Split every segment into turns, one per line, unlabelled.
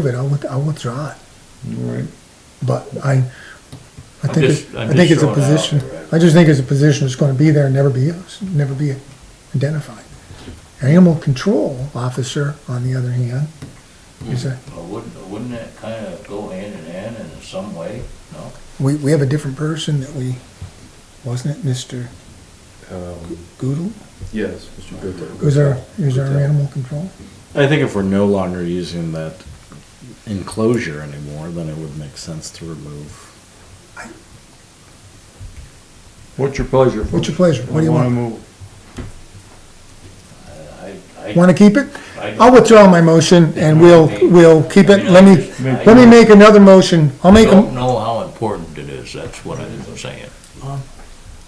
of it, I'll, with- I'll withdraw it.
All right.
But I, I
I'm
think,
just-
it-
I'm
I think
just
it's a
throwing it out
position,
there, right?
I just think it's a position that's gonna be there and never be used, never be identified. Animal control officer, on the other hand, is a,
Well, Wouldn't, wouldn't that kind of go hand in hand in some way, no?
we, we have a different person that we, wasn't it Mr.
Um,
Goodle?
Yes, Mr. Goodell.
Who's our, who's our animal control?
I think if we're no longer using that enclosure anymore, then it would make sense to remove.
What's your pleasure?
What's your pleasure? What do you want?
I, I.
Wanna keep it?
I-
I'll withdraw my motion and we'll, we'll keep it, let me, let me make another motion, I'll
I
make a,
don't know how important it is, that's what I'm saying.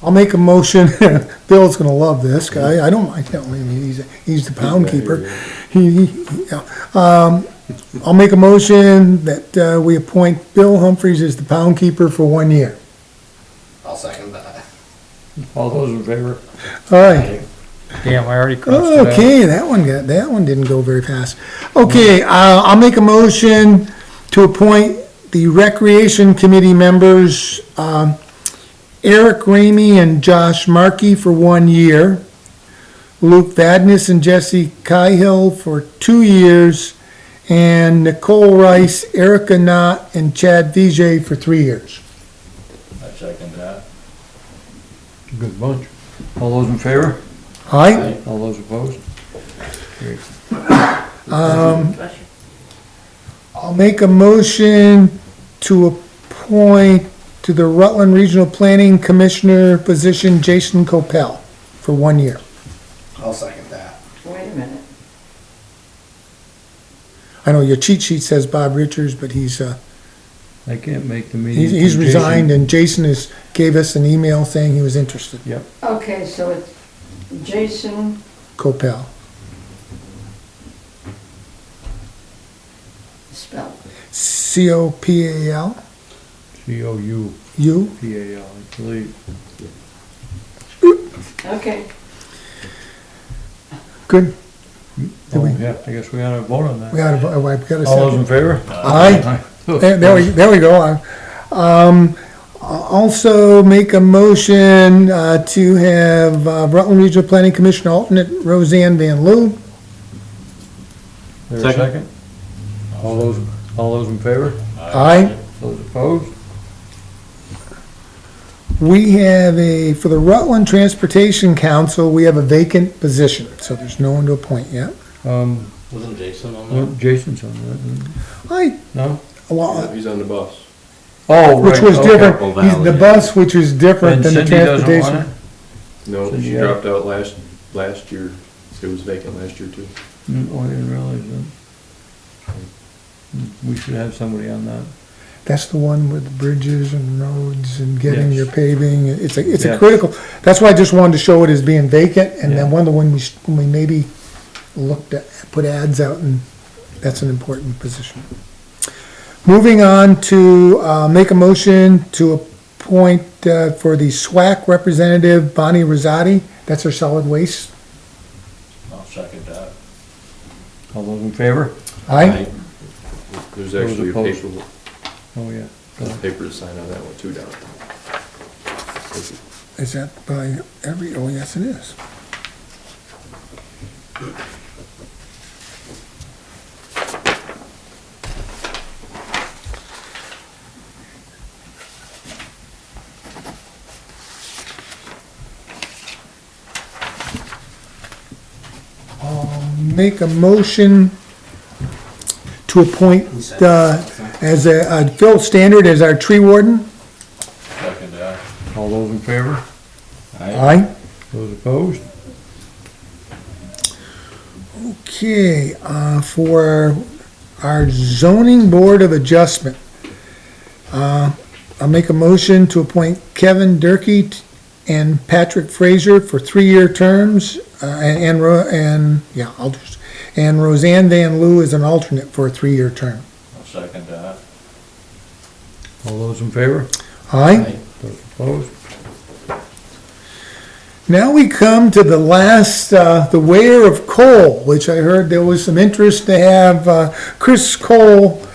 I'll make a motion, Bill's gonna love this guy, I don't mind telling him, he's, he's the pound keeper. He, he- yeah. um, I'll make a motion that, uh, we appoint Bill Humphries as the pound keeper for one year.
I'll second that.
All those in favor?
Alright,
Damn, I already crossed it out.
okay, that one got, that one didn't go very fast. Okay, uh, I'll make a motion to appoint the recreation committee members, um, Eric Ramey and Josh Markey for one year. Luke Vadness and Jesse Cahill for two years, and Nicole Rice, Erica Knott, and Chad Vijay for three years.
I second that.
Good bunch. All those in favor?
All right,
All those opposed?
I'll make a motion to appoint to the Rutland Regional Planning Commissioner position Jason Copel for one year.
I'll second that.
Wait a minute,
I know your cheat sheet says Bob Richards, but he's, uh,
I can't make the meeting.
he's he's
Jason-
resigned, and Jason is, gave us an email saying he was interested,
okay, so it's Jason,
Copel.
spell,
C-O-P-A-L,
C O U
you?
P A L, I believe.
okay.
Good. Do
Oh,
we-
yeah, I guess we ought to vote on
We
that.
gotta, vo- we gotta.
All those in favor?
Aye. There there we, there we go. Um, I'll also make a motion, uh, to have uh, Rutland Regional Planning Commission alternate Roseanne Van Loo.
There a second? All those, all those in favor?
Aye.
Those opposed?
We have a, for the Rutland Transportation Council, we have a vacant position, so there's no one to appoint yet.
Um,
Wasn't Jason on
well, Jason's on that, isn't
I,
he? no?
well,
He's on the bus.
Oh,
which
right,
was
okay.
different,
Well,
he's the
valid, yeah.
bus, which is different
And
than the
Cindy doesn't want
transportation.
it?
No,
So
she
you-
dropped out last, last year. It was vacant last year too.
Mm, Oh, I didn't realize that. Mm, We should have somebody on that.
That's the one with bridges and roads and getting
Yes.
your paving, it's a, it's a
Yeah.
critical, that's why I just wanted to show it as being vacant, and then
Yeah.
one of the one we, sh- when we maybe looked at, put ads out, and that's an important position. Moving on to, uh, make a motion to appoint, uh, for the SWAC representative, Bonnie Rosati, that's our solid waste,
I'll second that.
All those in favor?
aye?
There's
Those
actually a
opposed.
paper,
Oh, yeah.
a paper to sign on that one too, Don.
Is that by every, oh, yes, it is. I'll Make a motion to appoint, uh, as a, uh, Phil Standard as our tree warden.
Second that.
All those in favor?
Aye.
Those opposed?
Okay, uh, for our zoning board of adjustment, uh, I'll make a motion to appoint Kevin Durkey t- and Patrick Fraser for three-year terms, uh, and, and Ro- and, yeah, I'll just, and Roseanne Van Loo is an alternate for a three-year term.
I'll second that.
All those in favor?
Aye?
Those opposed?
Now we come to the last, uh, the wear of coal, which I heard there was some interest to have, uh, Chris Cole